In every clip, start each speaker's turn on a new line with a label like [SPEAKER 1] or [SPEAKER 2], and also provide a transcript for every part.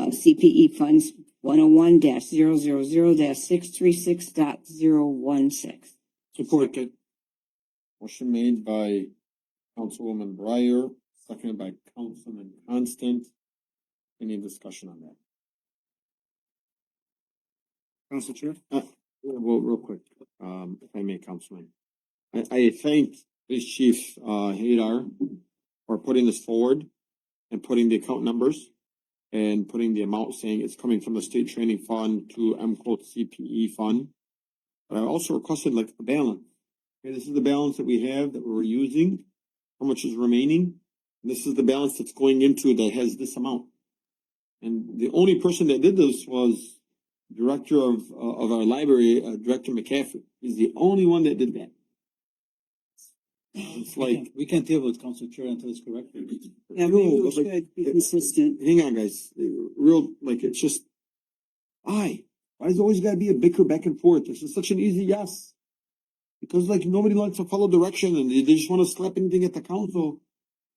[SPEAKER 1] of CPE E funds one oh one 0 six three six dot zero one six.
[SPEAKER 2] Support.
[SPEAKER 3] Motion made by Councilwoman Breyer, seconded by Councilman Constant. Any discussion on that?
[SPEAKER 2] Council Chair.
[SPEAKER 3] Uh, Well, real quick, um, if I may, Councilman. I, I thank Police Chief, uh, Hadar for putting this forward and putting the account numbers and putting the amount saying it's coming from the state training fund to M quote CPE fund. But I also requested like a balance. Okay, this is the balance that we have that we're using, how much is remaining? and This is the balance that's going into that has this amount. And the only person that did this was director of, uh, of our library, uh, Director McCaffrey, is the only one that did that. It's like,
[SPEAKER 2] We can't deal with Council Chair until it's corrected.
[SPEAKER 1] Yeah,
[SPEAKER 3] No,
[SPEAKER 1] maybe we
[SPEAKER 3] but like-
[SPEAKER 1] should be consistent.
[SPEAKER 3] hang on, guys, Uh, real, like, it's just, why? Why does it always gotta be a bicker back and forth? This is such an easy yes. Because like, nobody likes to follow direction and they, they just wanna slap anything at the council.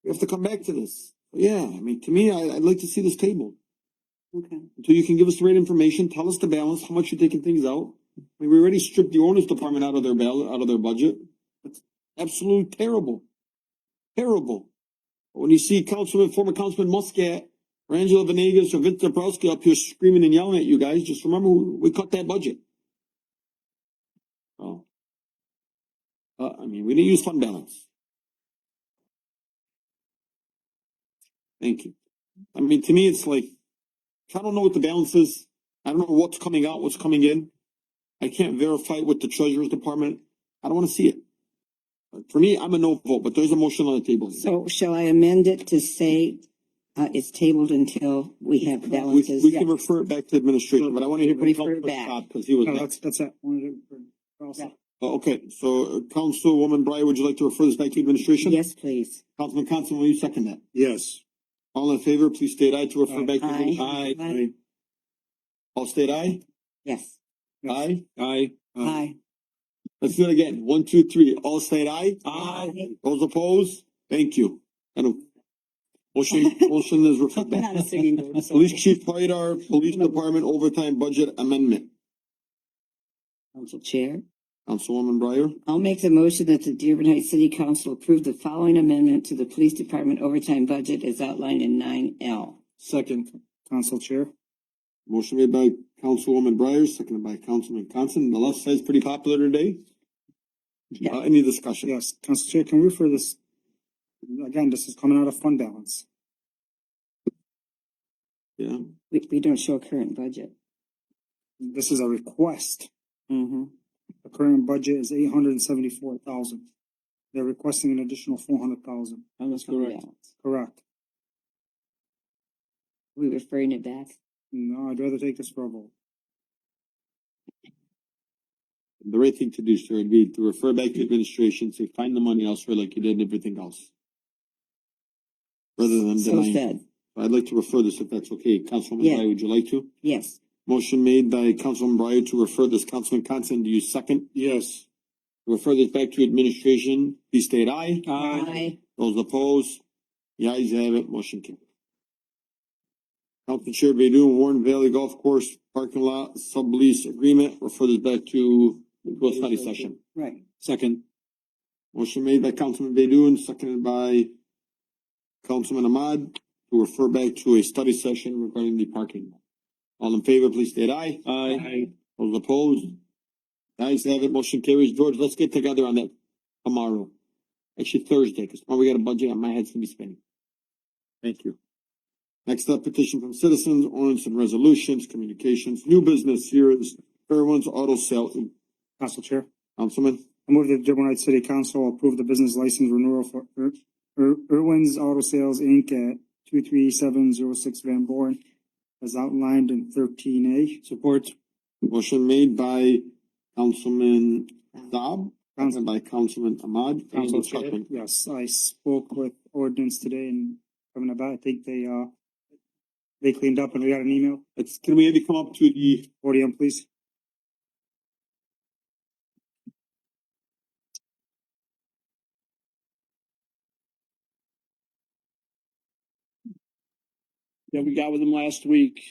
[SPEAKER 3] We have to come back to this. Yeah, I mean, to me, I, I'd like to see this tabled.
[SPEAKER 1] Okay.
[SPEAKER 3] until you can give us the right information, tell us the balance, how much you're taking things out. I mean, we already stripped the ordinance department out of their bal- out of their budget. That's absolutely terrible. Terrible. But When you see Councilman, former Councilman Muscat, or Angela Venegas, or Vince Dabrowski up here screaming and yelling at you guys, just remember, we we cut that budget. Oh. Uh, I mean, we didn't use fund balance. Thank you. I mean, to me, it's like, I don't know what the balance is. I don't know what's coming out, what's coming in. I can't verify it with the treasurer's department. I don't wanna see it. Uh, For me, I'm a no vote, but there's a motion on the table.
[SPEAKER 1] So shall I amend it to say, uh, it's tabled until we have
[SPEAKER 3] We,
[SPEAKER 1] balances?
[SPEAKER 3] we can refer it back to administration, but I wanna hear from
[SPEAKER 1] Oh, Refer
[SPEAKER 3] Councilman
[SPEAKER 1] back.
[SPEAKER 3] Saab, cause he was next.
[SPEAKER 2] oh, that's that. Council.
[SPEAKER 3] Uh, Okay, so uh, Councilwoman Breyer, would you like to refer this back to administration?
[SPEAKER 1] Yes, please.
[SPEAKER 3] Councilman Constant, will you second that?
[SPEAKER 2] Yes.
[SPEAKER 3] All in favor, please state aye to refer
[SPEAKER 2] Aye.
[SPEAKER 3] back to.
[SPEAKER 1] Aye. Aye.
[SPEAKER 3] All state aye?
[SPEAKER 1] Yes.
[SPEAKER 3] Aye? Aye.
[SPEAKER 1] Aye.
[SPEAKER 3] Let's do it again. One, two, three. All state aye? Those opposed? Thank you. And motion, motion is referred
[SPEAKER 1] Not a
[SPEAKER 3] back.
[SPEAKER 1] singing group, so-
[SPEAKER 3] Police Chief Pydar, Police Department Overtime Budget Amendment.
[SPEAKER 1] Council Chair.
[SPEAKER 3] Councilwoman Breyer,
[SPEAKER 1] I'll make the motion that the Dearborn Heights City Council approve the following amendment to the police department overtime budget as outlined in nine L.
[SPEAKER 2] Second. Council Chair.
[SPEAKER 3] motion made by Councilwoman Breyer, seconded by Councilman Constant. The left side's pretty popular today.
[SPEAKER 1] Yeah.
[SPEAKER 3] Uh, any discussion?
[SPEAKER 2] Yes, Council Chair, can we refer this? Again, this is coming out of fund balance.
[SPEAKER 3] Yeah.
[SPEAKER 1] We, we don't show current budget.
[SPEAKER 2] This is a request.
[SPEAKER 1] Mm-hmm.
[SPEAKER 2] The current budget is eight hundred and seventy-four thousand. They're requesting an additional four hundred thousand,
[SPEAKER 3] That's correct.
[SPEAKER 2] correct?
[SPEAKER 1] We referring it back.
[SPEAKER 2] No, I'd rather take this for a vote.
[SPEAKER 3] The right thing to do, sir, would be to refer back to administration, say, find the money elsewhere like you did everything else. Rather than
[SPEAKER 1] So
[SPEAKER 3] denying.
[SPEAKER 1] said,
[SPEAKER 3] I'd like to refer this if that's okay. Councilwoman
[SPEAKER 1] Yeah.
[SPEAKER 3] Breyer, would you like to?
[SPEAKER 1] yes.
[SPEAKER 3] Motion made by Councilman Breyer to refer this, Councilman Constant, do you second? Yes. Refer this back to administration, please state aye.
[SPEAKER 2] Uh,
[SPEAKER 1] Aye.
[SPEAKER 3] Those opposed, the ayes have it, motion carried. Council Chair Baydun, Warren Valley Golf Course Parking Lot Sublease Agreement, refer this back to to a study session.
[SPEAKER 1] Right.
[SPEAKER 3] Second. Motion made by Councilman Baydun, seconded by Councilman Ahmad, to refer back to a study session regarding the parking. lot. All in favor, please state aye.
[SPEAKER 1] Aye.
[SPEAKER 3] Those opposed? Ayes have it, motion carries. George, let's get together on that tomorrow. Actually Thursday, cause tomorrow we got a budget and my head's gonna be spinning. Thank you. Next up, petition from citizens, ordinance and resolutions, communications, new business here is Fairwinds Auto Sale.
[SPEAKER 2] Council Chair.
[SPEAKER 3] Councilman?
[SPEAKER 2] I move that the Dearborn Heights City Council approve the business license renewal for Ir- Ir- Irwin's Auto Sales Inc. at two three seven zero six Van Born as outlined in thirteen A. Support.
[SPEAKER 3] Motion made by Councilman
[SPEAKER 1] Uh,
[SPEAKER 3] Saab, seconded by Councilman Ahmad. Any discussion?
[SPEAKER 2] Yes, I spoke with ordinance today and coming about, I think they, uh, they cleaned up and we got an email.
[SPEAKER 3] It's, can we maybe come up to the,
[SPEAKER 2] Podium, please.
[SPEAKER 4] that we got with them last week.